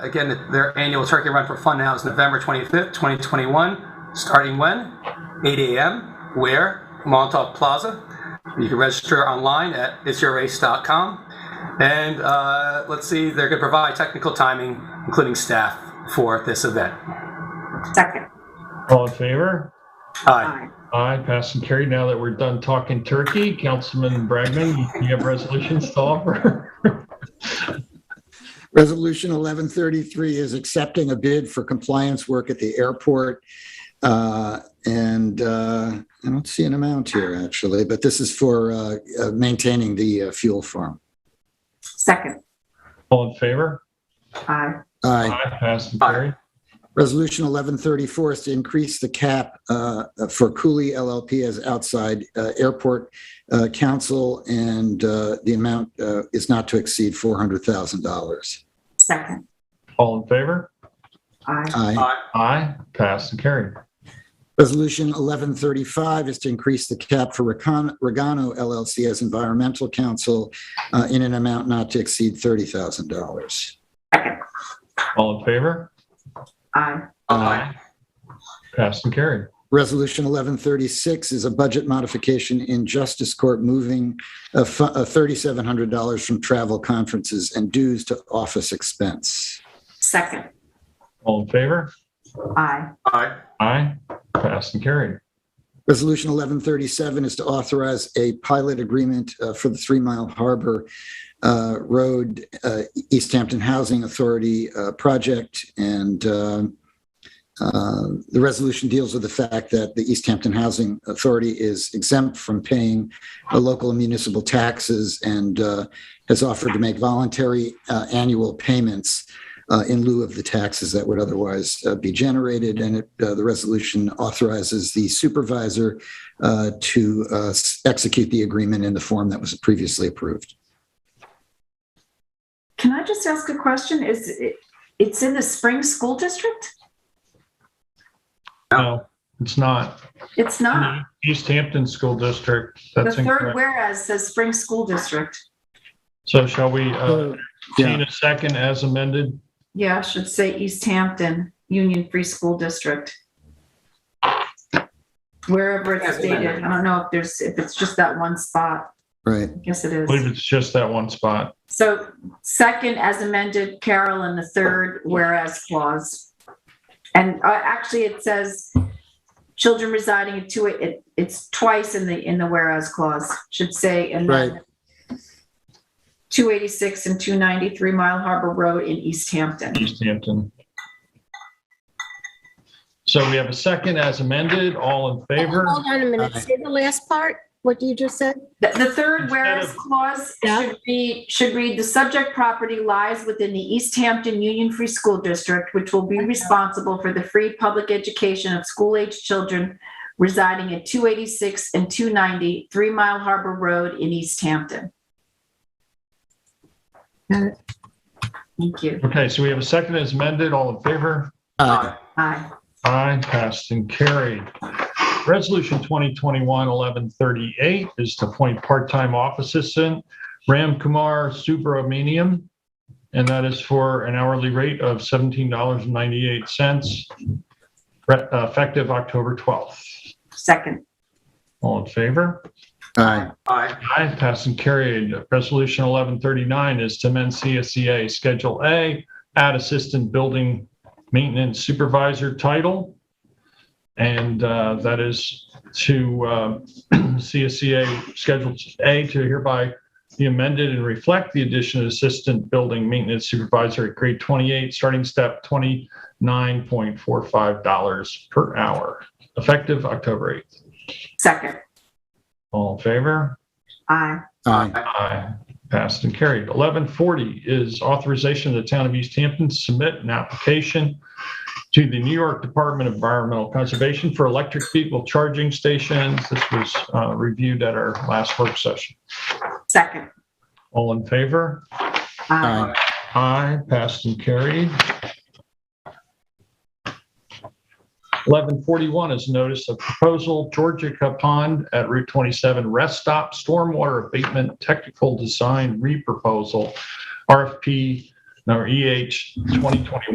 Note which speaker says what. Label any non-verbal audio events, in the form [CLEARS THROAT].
Speaker 1: Again, their annual turkey run for fun now is November 25th, 2021, starting when? 8 a.m. Where? Montauk Plaza. You can register online at itsyourrace.com. And uh, let's see, they're going to provide technical timing, including staff, for this event.
Speaker 2: Second.
Speaker 3: All in favor?
Speaker 1: Aye.
Speaker 2: Aye.
Speaker 3: Aye, pass and carry. Now that we're done talking turkey, Councilman Bragman, you- you have resolutions to offer? [LAUGHS]
Speaker 4: Resolution 1133 is accepting a bid for compliance work at the airport. Uh, And uh, I don't see an amount here, actually, but this is for uh, uh, maintaining the uh, fuel farm.
Speaker 2: Second.
Speaker 3: All in favor?
Speaker 2: Aye.
Speaker 4: Aye.
Speaker 3: Aye, pass and
Speaker 1: Aye.
Speaker 3: carry.
Speaker 4: Resolution 1134 is to increase the cap uh, for Cooley LLP as outside uh, airport uh, council, and uh, the amount uh, is not to exceed $400,000.
Speaker 2: Second.
Speaker 3: All in favor?
Speaker 2: Aye.
Speaker 4: Aye.
Speaker 3: Aye, pass and carry.
Speaker 4: Resolution 1135 is to increase the cap for Recon- Regano LLC as environmental counsel uh, in an amount not to exceed $30,000.
Speaker 2: Second.
Speaker 3: All in favor?
Speaker 2: Aye.
Speaker 1: Aye.
Speaker 3: Pass and carry.
Speaker 4: Resolution 1136 is a budget modification in Justice Court, moving uh, fu- uh, $3,700 from travel conferences and dues to office expense.
Speaker 2: Second.
Speaker 3: All in favor?
Speaker 2: Aye.
Speaker 1: Aye.
Speaker 3: Aye, pass and carry.
Speaker 4: Resolution 1137 is to authorize a pilot agreement uh, for the Three Mile Harbor uh, Road uh, East Hampton Housing Authority uh, project. And um, uh, the resolution deals with the fact that the East Hampton Housing Authority is exempt from paying the local and municipal taxes and uh, has offered to make voluntary uh, annual payments uh, in lieu of the taxes that would otherwise uh, be generated. And it, uh, the resolution authorizes the supervisor uh, to uh, s- execute the agreement in the form that was previously approved.
Speaker 2: Can I just ask a question? Is it, it's in the Spring School District?
Speaker 3: No, it's not.
Speaker 2: It's not.
Speaker 3: East Hampton School District,
Speaker 2: The
Speaker 3: Mm-hmm. that's
Speaker 2: third
Speaker 3: incorrect.
Speaker 2: whereas says Spring School District.
Speaker 3: So shall we, uh,
Speaker 4: Yeah.
Speaker 3: entertain a second as amended?
Speaker 2: Yeah, I should say East Hampton Union Free School District. Wherever it's stated. I don't know if there's, if it's just that one spot.
Speaker 4: Right.
Speaker 2: I guess it
Speaker 3: I believe
Speaker 2: is.
Speaker 3: it's just that one spot.
Speaker 2: So second as amended, Carol, and the third whereas clause. And uh, actually, it says children residing in two, it, it's twice in the, in the whereas clause, should say. and then 286 and 293 Mile Harbor Road in East Hampton.
Speaker 3: East Hampton. So we have a second as amended, all in favor?
Speaker 5: Hold on a minute, say the last part, what you just said?
Speaker 2: The, the third
Speaker 3: Instead
Speaker 2: whereas
Speaker 3: of-
Speaker 2: clause
Speaker 5: Yeah.
Speaker 2: should be, should read, the subject property lies within the East Hampton Union Free School District, which will be responsible for the free public education of school-aged children residing at 286 and 290 Three Mile Harbor Road in East Hampton.
Speaker 5: Got it.
Speaker 2: Thank you.
Speaker 3: Okay, so we have a second as amended, all in favor?
Speaker 4: Aye.
Speaker 2: Aye.
Speaker 3: Aye, passed and carried. Resolution 2021-1138 is to appoint part-time office assistant Ram Kumar Subramaniam, and that is for an hourly rate of $17.98, re- uh, effective October 12th.
Speaker 2: Second.
Speaker 3: All in favor?
Speaker 4: Aye.
Speaker 1: Aye.
Speaker 3: Aye, pass and carried. Resolution 1139 is to amend CSEA Schedule A, add Assistant Building Maintenance Supervisor title. And uh, that is to uh, [CLEARS THROAT] CSEA Schedule A to hereby be amended and reflect the addition of Assistant Building Maintenance Supervisor at grade 28, starting step $29.45 per hour, effective October 8th.
Speaker 2: Second.
Speaker 3: All in favor?
Speaker 2: Aye.
Speaker 4: Aye.
Speaker 3: Aye. Passed and carried. 1140 is authorization of the town of East Hampton to submit an application to the New York Department of Environmental Conservation for electric vehicle charging stations. This was uh, reviewed at our last work session.
Speaker 2: Second.
Speaker 3: All in favor?
Speaker 2: Aye.
Speaker 4: Aye.
Speaker 3: Aye. Passed and carried. 1141 is notice of proposal Georgia Pond at Route 27 Rest Stop Stormwater Abatement Technical Design Reproposal, RFP number EH 2021.